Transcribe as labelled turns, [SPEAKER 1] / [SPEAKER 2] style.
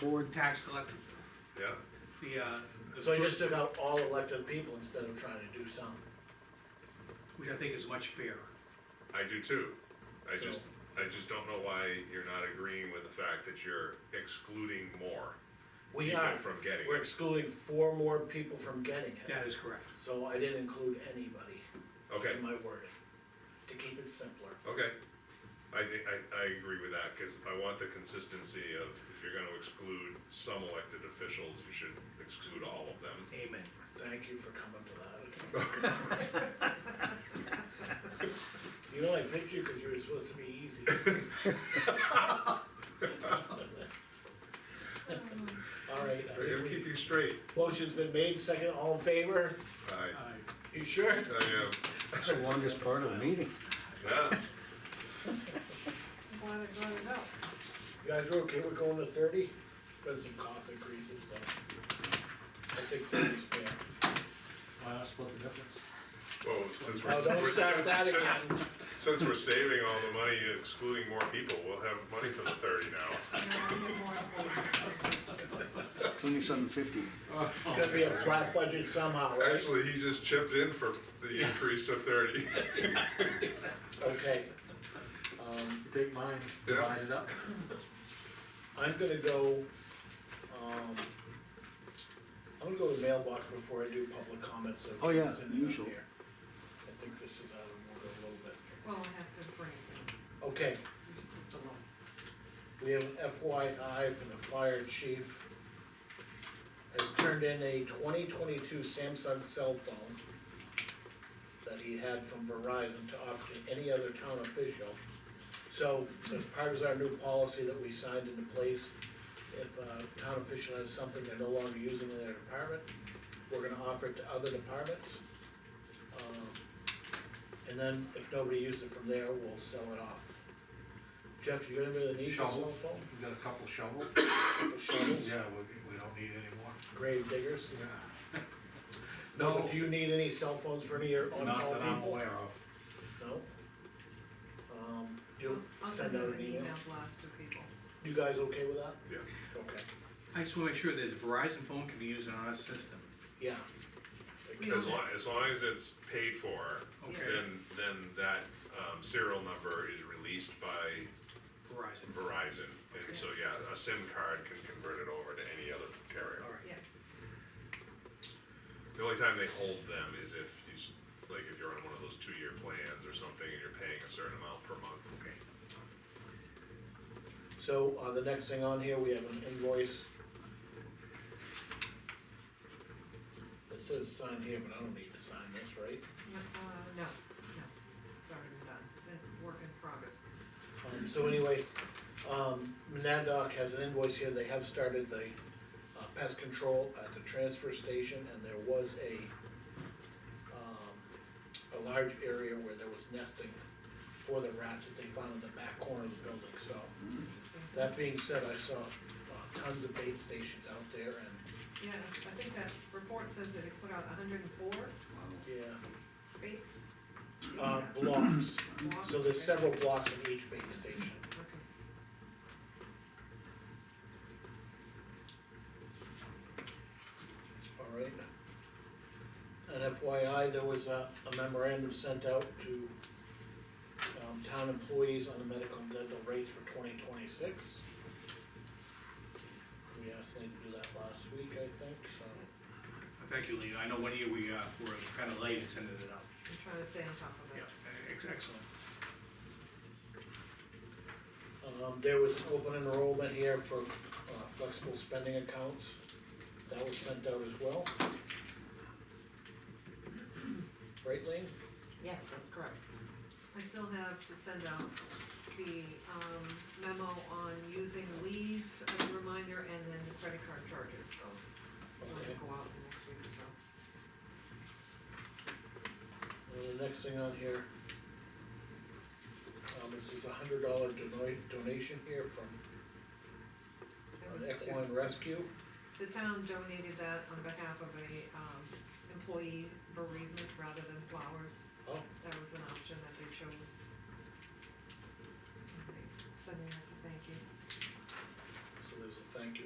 [SPEAKER 1] board tax collector,
[SPEAKER 2] Yeah,
[SPEAKER 1] the, uh,
[SPEAKER 3] So you just took out all elected people instead of trying to do some.
[SPEAKER 1] which I think is much fairer.
[SPEAKER 2] I do too. I
[SPEAKER 3] So-
[SPEAKER 2] just, I just don't know why you're not agreeing with the fact that you're excluding more
[SPEAKER 3] We
[SPEAKER 2] people
[SPEAKER 3] are,
[SPEAKER 2] from getting
[SPEAKER 3] we're
[SPEAKER 2] it.
[SPEAKER 3] excluding four more people from getting it,
[SPEAKER 1] That is correct.
[SPEAKER 3] so I didn't include anybody
[SPEAKER 2] Okay,
[SPEAKER 3] in my wording, to keep it simpler.
[SPEAKER 2] okay. I, thi- I, I agree with that, cause I want the consistency of, if you're gonna exclude some elected officials, you should exclude all of them.
[SPEAKER 1] Amen.
[SPEAKER 3] Thank you for coming to that. You know, I picked you because you were supposed to be easy. All right, I
[SPEAKER 2] We're gonna
[SPEAKER 3] think
[SPEAKER 2] keep you straight.
[SPEAKER 3] we- motion's been made, second, all in favor?
[SPEAKER 2] I,
[SPEAKER 1] Uh,
[SPEAKER 3] You sure?
[SPEAKER 2] I am,
[SPEAKER 4] That's the longest part of the meeting.
[SPEAKER 2] yeah,
[SPEAKER 5] Glad it brought it up.
[SPEAKER 3] You guys are okay, we're going to thirty, been some cost increases, so I think thirty's fair.
[SPEAKER 4] Why not split the difference?
[SPEAKER 2] well, since we're,
[SPEAKER 3] Now, Oh, don't start with that
[SPEAKER 2] since,
[SPEAKER 3] again,
[SPEAKER 2] since we're saving all the money, excluding more people, we'll have money for the thirty now.
[SPEAKER 4] Twenty-seven fifty.
[SPEAKER 3] it's gonna be a flat budget somehow, right?
[SPEAKER 2] Actually, he just chipped in for the increase of thirty.
[SPEAKER 3] Okay. Um,
[SPEAKER 4] Take mine,
[SPEAKER 2] Yeah.
[SPEAKER 4] divide it up.
[SPEAKER 3] I'm gonna go, um, I'm gonna go to the mailbox before I do public comments, so. if
[SPEAKER 4] Oh, yeah,
[SPEAKER 3] there's anything
[SPEAKER 4] usual.
[SPEAKER 3] here. I think this is out of order a little bit.
[SPEAKER 5] Well, I have to bring it
[SPEAKER 3] Okay,
[SPEAKER 5] along.
[SPEAKER 3] We have an FYI from the fire chief. Has turned in a twenty twenty-two Samsung cell phone that he had from Verizon to offer to any other town official. So as part of our new policy that we signed into place, if a town official has something they're no longer using in their department, we're gonna offer it to other departments. Um, And then if nobody uses it from there, we'll sell it off. Jeff, you gonna be the need for a cell
[SPEAKER 6] Shovels.
[SPEAKER 3] phone?
[SPEAKER 6] We got a couple shovels,
[SPEAKER 3] shovels,
[SPEAKER 6] yeah, we, we don't need any more.
[SPEAKER 3] grave diggers.
[SPEAKER 6] No,
[SPEAKER 3] But do you need any cell phones for any of your
[SPEAKER 6] not
[SPEAKER 3] on-call
[SPEAKER 6] that I'm
[SPEAKER 3] people?
[SPEAKER 6] aware of.
[SPEAKER 3] No? Um, you'll
[SPEAKER 5] I'll
[SPEAKER 3] send
[SPEAKER 5] send
[SPEAKER 3] out
[SPEAKER 5] out
[SPEAKER 3] an email?
[SPEAKER 5] email blast to people.
[SPEAKER 3] You guys okay with that?
[SPEAKER 2] Yeah.
[SPEAKER 3] Okay,
[SPEAKER 1] I just wanna make sure this Verizon phone can be used on our system.
[SPEAKER 3] yeah.
[SPEAKER 5] We
[SPEAKER 2] As
[SPEAKER 5] own
[SPEAKER 2] long, as long as it's paid for,
[SPEAKER 1] Okay.
[SPEAKER 2] then, then that, um, serial number is released by
[SPEAKER 1] Verizon,
[SPEAKER 2] Verizon. And so, yeah, a SIM card can convert it over to any other carrier.
[SPEAKER 1] alright.
[SPEAKER 5] it. Yeah,
[SPEAKER 2] The only time they hold them is if you, s- like, if you're on one of those two-year plans or something and you're paying a certain amount per month.
[SPEAKER 1] Okay.
[SPEAKER 3] So, uh, the next thing on here, we have an invoice. It says sign here, but I don't need to sign this, right?
[SPEAKER 5] no, uh, no, no, it's already been done, it's in work in progress.
[SPEAKER 3] Um, so anyway, um, Monadnock has an invoice here, they have started the uh, pest control at the transfer station, and there was a, um, a large area where there was nesting for the rats that they found in the back corner of the building, so. That being said, I saw uh, tons of bait stations out there, and,
[SPEAKER 5] Yeah, I think that report says that they put out hundred and four
[SPEAKER 3] yeah,
[SPEAKER 5] baits.
[SPEAKER 3] uh, blocks,
[SPEAKER 5] Blocks,
[SPEAKER 3] so there's
[SPEAKER 5] okay.
[SPEAKER 3] several blocks in each bait station.
[SPEAKER 5] Okay.
[SPEAKER 3] All right. And FYI, there was a a memorandum sent out to um, town employees on the medical and dental rates for twenty twenty-six. We asked them to do that last week, I think, so.
[SPEAKER 1] Thank you, Lean, I know one year we, uh, were kinda late in sending it out.
[SPEAKER 5] I'm trying to stay on top of
[SPEAKER 1] Yeah, e-,
[SPEAKER 5] it.
[SPEAKER 1] ex- excellent.
[SPEAKER 3] Um, there was open enrollment here for uh, flexible spending accounts. That was sent out as well. Right, Lane?
[SPEAKER 5] Yes, that's correct. I still have to send out the um, memo on using leave as a reminder and then the credit card charges, so
[SPEAKER 3] Okay.
[SPEAKER 5] it'll go out in the next week or so.
[SPEAKER 3] And the next thing on here, um, this is a hundred dollar donation here from
[SPEAKER 5] That
[SPEAKER 3] uh,
[SPEAKER 5] was two.
[SPEAKER 3] Equine Rescue.
[SPEAKER 5] The town donated that on behalf of a um, employee bereavement rather than flowers.
[SPEAKER 3] Oh,
[SPEAKER 5] That was an option that they chose. And they Sending us a thank you.
[SPEAKER 3] so there's a thank you